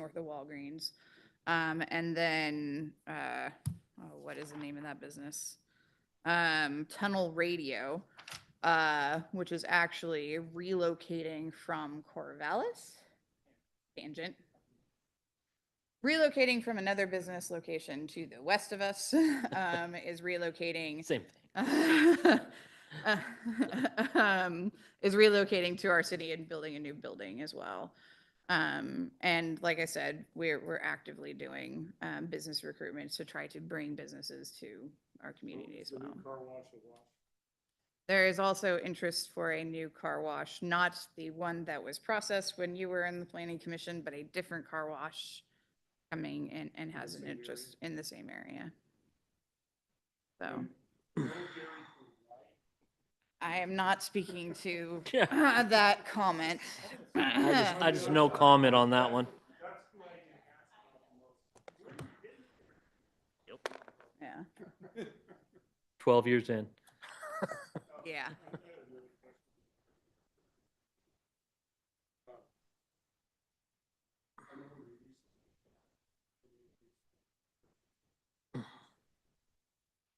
or the Walgreens. Um, and then, uh, oh, what is the name of that business? Um, Tunnel Radio, uh, which is actually relocating from Corvallis. Tangent. Relocating from another business location to the west of us, um, is relocating Same thing. um, is relocating to our city and building a new building as well. Um, and like I said, we're, we're actively doing, um, business recruitment to try to bring businesses to our community as The new well. Car wash at Wash. There is also interest for a new car wash, not the one that was processed when you were in the planning commission, but a different car wash coming and, and has an same area? interest in the same area. So. I am not speaking to uh, that comment. I just, I just no comment on that one. Yeah, Twelve years in. yeah.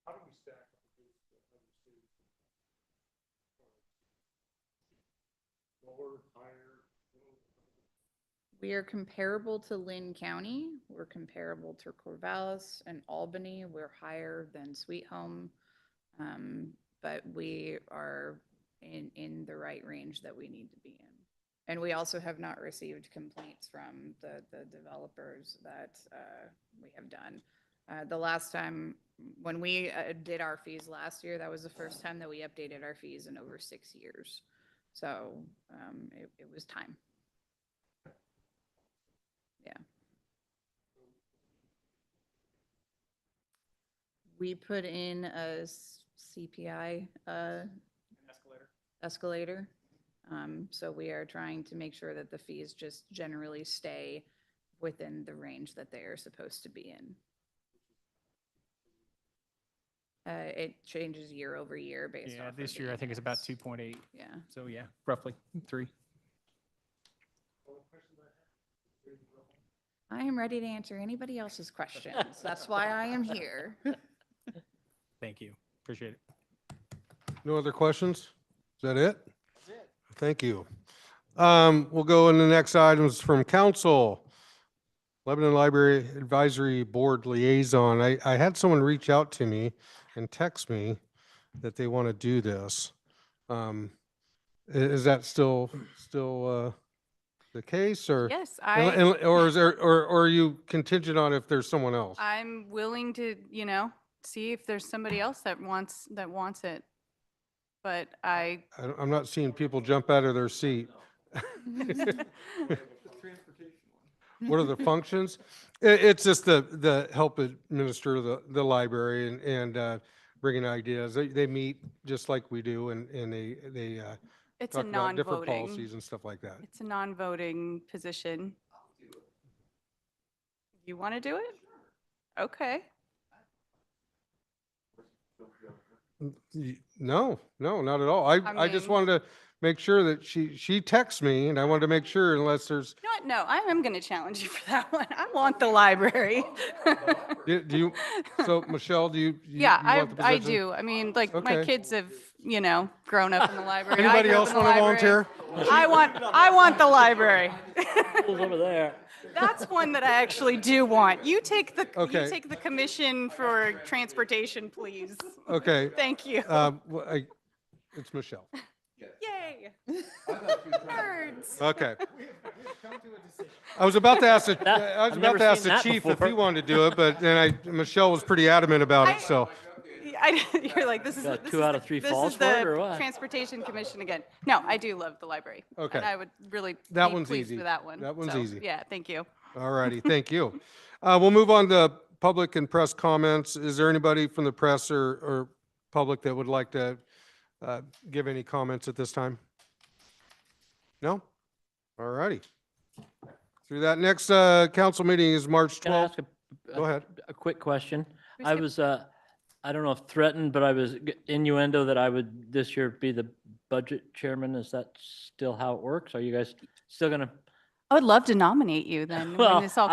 How do we stack up against the other cities? Lower, higher, middle? We are comparable to Lynn County. We're comparable to Corvallis and Albany. We're higher than Sweet Home. Um, but we are in, in the right range that we need to be in. And we also have not received complaints from the, the developers that, uh, we have done. Uh, the last time, when we, uh, did our fees last year, that was the first time that we updated our fees in over six years. So, um, it, it was time. We put in a s- CPI uh, Escalator. escalator. Um, So we are trying to make sure that the fees just generally stay within the range that they are supposed to be in. Uh, It changes year over year based off. Yeah, of this the year I think it's about index. two point eight. Yeah. So yeah, roughly three. All the questions I have. Very well. I am ready to answer anybody else's questions. That's why I am here. Thank you. Appreciate it. No other questions? Is that it? Thank you. Um, We'll go in the next items from council. Lebanon Library Advisory Board Liaison. I, I had someone reach out to me and text me that they want to do this. Um, i- Is that still, still uh, the case or? Yes, and- I, and- Or is there, or, or are you contingent on if there's someone else? I'm willing to, you know, see if there's somebody else that wants, that wants it. But I, I don't- I'm not seeing people jump out of their seat. What are the functions? I it's just the, the help administer the, the library and, and, uh, bringing ideas. They, they meet just like we do and, and they, they, uh, it's a talk about different non-voting, policies and stuff like that. it's a non-voting position. You want to do it? Okay. N- y- No, no, not at all. I, I I just mean- wanted to make sure that she, she texts me and I wanted to make sure unless there's, You know what? No, I am going to challenge you for that one. I want the library. do do you, so Michelle, do you? you- Yeah, you I, want the I position? do. I mean, like, my Okay. kids have, you know, grown up in the library. I Anybody grew up else in the want to library. volunteer? I want, I want the library. Over there. That's one that I actually do want. You take the, Okay. you take the commission for transportation, please. Okay. Thank you. Um, well, I, it's Michelle. Yay. Nerds. Okay. I was about to ask, the- That- I was I've about never to ask seen the that chief if before. he wanted to do it, but then I, Michelle was pretty adamant about I- it, so. I, you're like, this is. Got this two is out the- of three this falls is for it, the or what? Transportation commission again. No, I do love the library. Okay. And I would really That be one's pleased easy. with that one. That one's So, easy. Yeah, thank you. All righty, thank you. Uh, we'll move on to public and press comments. Is there anybody from the press or, or public that would like to, uh, give any comments at this time? No? All righty. Through that, next, uh, council meeting is March Can I twelfth. ask a, Go ahead. a quick question? Who's I here? was, uh, I don't know if threatened, but I was g- innuendo that I would this year be the budget chairman. Is that still how it works? Are you guys still gonna I would love to nominate you then when Well, this all